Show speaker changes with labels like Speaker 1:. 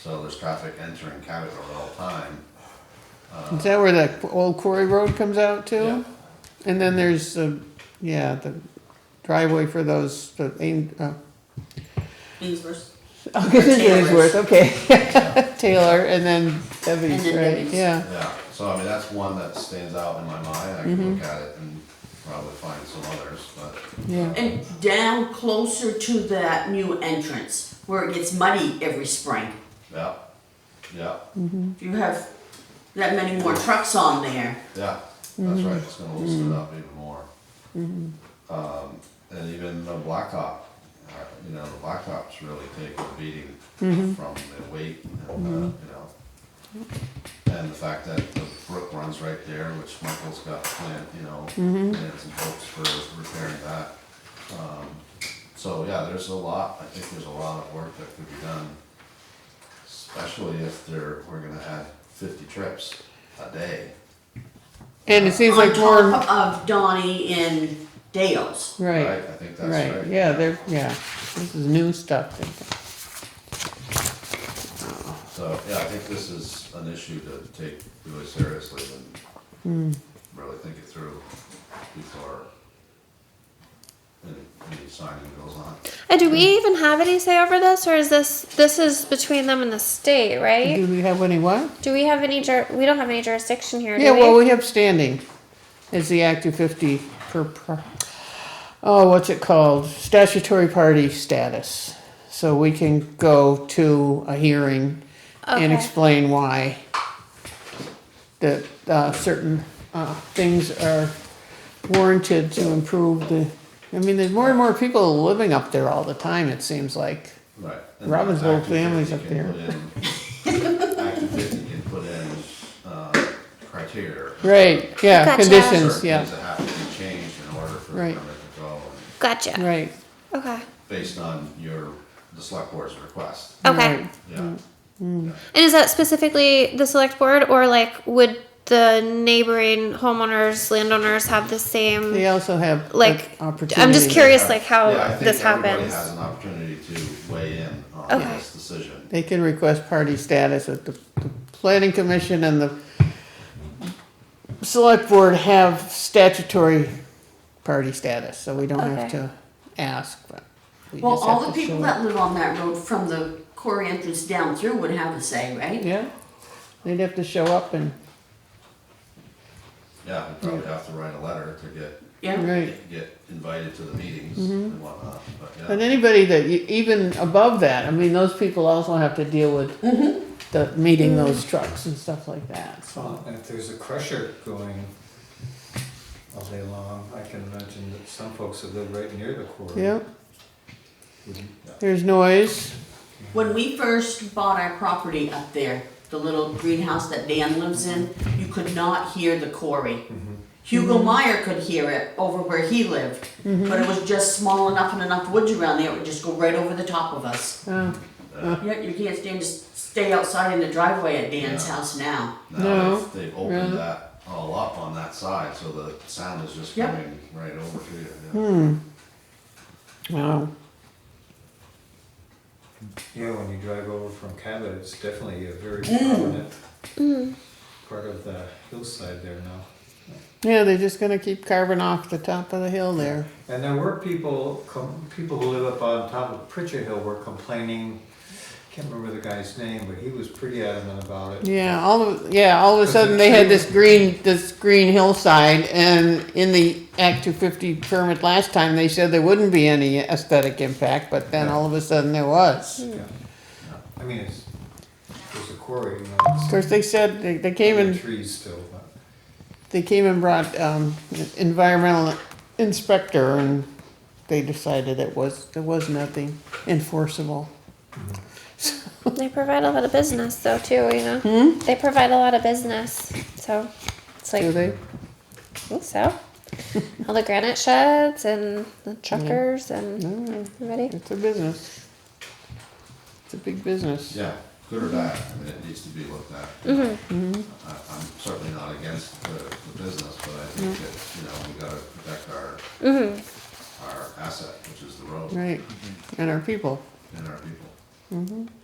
Speaker 1: So there's traffic entering Cabot Road all the time.
Speaker 2: Is that where that old quarry road comes out too?
Speaker 1: Yeah.
Speaker 2: And then there's the, yeah, the driveway for those, the, aim- uh,
Speaker 3: Beansworth.
Speaker 2: okay, there's
Speaker 3: Taylor's.
Speaker 2: Ainsworth, okay. Taylor and then Debbie's,
Speaker 3: And then
Speaker 2: right,
Speaker 3: Debbie's.
Speaker 2: yeah.
Speaker 1: Yeah, so I mean, that's one that stands out in my mind, I can look at it and probably find some others, but.
Speaker 2: Yeah.
Speaker 3: And down closer to that new entrance where it gets muddy every spring.
Speaker 1: Yeah, yeah,
Speaker 3: If you have that many more trucks on there,
Speaker 1: yeah, that's right, it's gonna loosen it up even more. Um, and even the blacktop, uh, you know, the blacktop's really taken a beating from the weight and, uh, you know. And the fact that the brook runs right there, which Michael's got planned, you know, plans and hopes for repairing that. Um, so, yeah, there's a lot, I think there's a lot of work that could be done. Especially if there, we're gonna have fifty trips a day.
Speaker 2: And it seems
Speaker 3: on
Speaker 2: like more,
Speaker 3: top of Donnie and Dale's.
Speaker 2: right,
Speaker 1: I think that's right.
Speaker 2: right, yeah, they're, yeah, this is new stuff.
Speaker 1: So, yeah, I think this is an issue to take really seriously and
Speaker 2: Hmm.
Speaker 1: really think it through before any, any signing goes on.
Speaker 4: And do we even have any say over this, or is this this is between them and the state, right?
Speaker 2: Do we have any what?
Speaker 4: Do we have any? Jur- we don't have any jurisdiction here.
Speaker 2: Yeah,
Speaker 4: do
Speaker 2: well, we have standing as the Act 250 per, per, oh, what's it called? Statutory party status. So we can go to a hearing and
Speaker 4: Okay.
Speaker 2: explain why that uh, certain uh, things are warranted to improve the, I mean, there's more and more people living up there all the time, it seems like.
Speaker 1: Right. and
Speaker 2: Robin's
Speaker 1: Act
Speaker 2: whole
Speaker 1: 250
Speaker 2: family's up
Speaker 1: can put in- Act two fifty can put in, uh, criteria.
Speaker 2: Right, yeah,
Speaker 4: Gotcha.
Speaker 2: conditions,
Speaker 1: Certain
Speaker 2: yeah,
Speaker 1: things that have to be changed in order for
Speaker 2: Right.
Speaker 1: permit control,
Speaker 4: gotcha.
Speaker 2: right.
Speaker 4: Okay.
Speaker 1: based on your, the select board's request,
Speaker 4: Okay.
Speaker 2: right.
Speaker 1: yeah.
Speaker 4: And is that specifically the select board, or like would the neighboring homeowners, landowners have the same?
Speaker 2: They also have.
Speaker 4: Like,
Speaker 2: opportunity.
Speaker 4: I'm just curious,
Speaker 1: Yeah.
Speaker 4: like how
Speaker 1: Yeah, I think
Speaker 4: this
Speaker 1: everybody
Speaker 4: happens.
Speaker 1: Has an opportunity to weigh in on
Speaker 4: Okay.
Speaker 1: this decision.
Speaker 2: They can request party status at the, the planning commission and the select board have statutory party status, so we don't have
Speaker 4: Okay.
Speaker 2: to ask, but. we
Speaker 3: Well,
Speaker 2: just
Speaker 3: all
Speaker 2: have
Speaker 3: the
Speaker 2: to
Speaker 3: people
Speaker 2: show it.
Speaker 3: that live on that road from the quarry entrance down through would have a say, right?
Speaker 2: Yeah, they'd have to show up and,
Speaker 1: Yeah, we probably have to write a letter to get,
Speaker 3: Yeah.
Speaker 2: right.
Speaker 1: get invited to the meetings
Speaker 4: Mm-hmm.
Speaker 1: and whatnot, but
Speaker 2: But
Speaker 1: yeah.
Speaker 2: anybody that, you- even above that, I mean, those people also have to deal with
Speaker 3: Mm-hmm.
Speaker 2: the, meeting those trucks and stuff like that, so.
Speaker 5: Well, if there's a crusher going all day long, I can imagine that some folks that live right near the quarry.
Speaker 2: Yeah,
Speaker 5: wouldn't-
Speaker 2: there's noise,
Speaker 3: When we first bought our property up there, the little greenhouse that Dan lives in, you could not hear the quarry. Hugo Meyer could hear it over where he lived, but it was just small enough and enough woods around there, it would just go right over the top of us.
Speaker 2: uh,
Speaker 3: Yeah, you can't stand to s- stay outside in the driveway at Dan's house now.
Speaker 1: Now,
Speaker 2: No,
Speaker 1: they've- they've
Speaker 2: really?
Speaker 1: opened that all up on that side, so the sound is just
Speaker 3: Yeah.
Speaker 1: coming right over to
Speaker 4: Hmm.
Speaker 1: you,
Speaker 2: wow,
Speaker 5: You know, when you drive over from Cabot, it's definitely a very prominent part of the hillside there now.
Speaker 2: yeah, they're just gonna keep carving off the top of the hill there.
Speaker 5: And there were people, com- people who live up on top of Pritchard Hill were complaining, can't remember the guy's name, but he was pretty adamant about it.
Speaker 2: Yeah, all of yeah, all of a
Speaker 5: Because
Speaker 2: sudden
Speaker 5: it's
Speaker 2: they had
Speaker 5: true.
Speaker 2: this green this green hillside, and in the Act 250 permit last time they said there wouldn't be any aesthetic impact, but then all of a sudden there was.
Speaker 5: Yeah. I mean, it's, there's a quarry, you know,
Speaker 2: Of
Speaker 5: it's
Speaker 2: course, they said they, they came and
Speaker 5: trees still, but.
Speaker 2: they came and brought um, environmental inspector, and they decided it was there was nothing enforceable.
Speaker 4: They provide a lot of business, though, too. You know, hmm? they provide a lot of business, so it's like
Speaker 2: Do they?
Speaker 4: I think so. All the granite sheds and the truckers and
Speaker 2: No,
Speaker 4: everybody.
Speaker 2: it's a business. It's a big business.
Speaker 1: yeah. Yeah, good or bad, I mean, it needs to be looked at.
Speaker 4: Hmm. Mm-hmm,
Speaker 1: I, I'm certainly not against the, the business, but I think
Speaker 4: Hmm.
Speaker 1: that, you know, we gotta protect our,
Speaker 4: mm-hmm.
Speaker 1: our asset, which is the road
Speaker 2: Right, and our people.
Speaker 1: and our people.